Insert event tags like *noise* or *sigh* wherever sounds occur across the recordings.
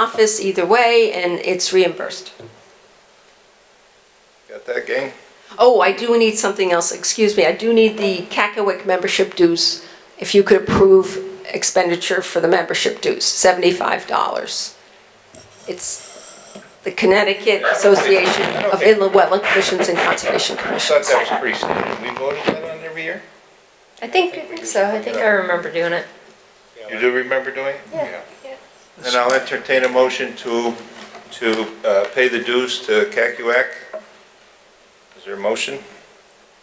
office either way, and it's reimbursed. Got that, gang? Oh, I do need something else, excuse me, I do need the Cackaway membership dues, if you could approve expenditure for the membership dues, $75. It's the Connecticut Association of Inland Wetland Commissions and Conservation I thought Commissions. that was pretty standard. We voted that on every year? I think so, I think I remember doing it. You do remember doing it? Yeah. Then I'll entertain a motion to, to uh, pay the dues to CACUAC. Is there a motion?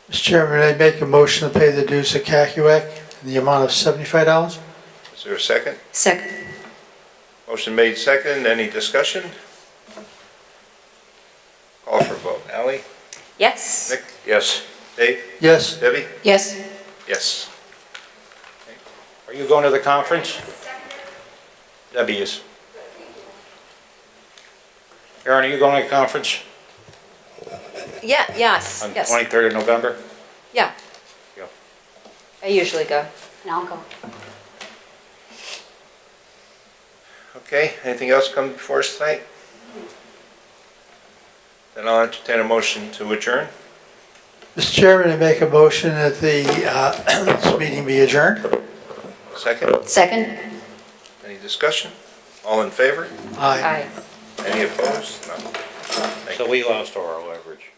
Mr. Chairman, I make a motion to pay the dues of Cacuac in the amount of seventy-five dollars. Is there a second? Second. Motion made second. Any discussion? Call for vote. Ally? Yes. Nick? Yes. Dave? Yes, Debbie? Yes. Yes. Are you going to the conference? Debbie is. Aaron, are you going to the conference Yeah, yes, on the yes, 23rd of November? yeah. I usually go. And I'll go. Okay, anything else come before us tonight? Then I'll entertain a motion to adjourn. Mr. Chairman, I make a motion that the, uh, *coughs* this meeting be adjourned. Second? Second? Any discussion? All in favor? Aye. Aye. Any opposed? None. So we lost our leverage.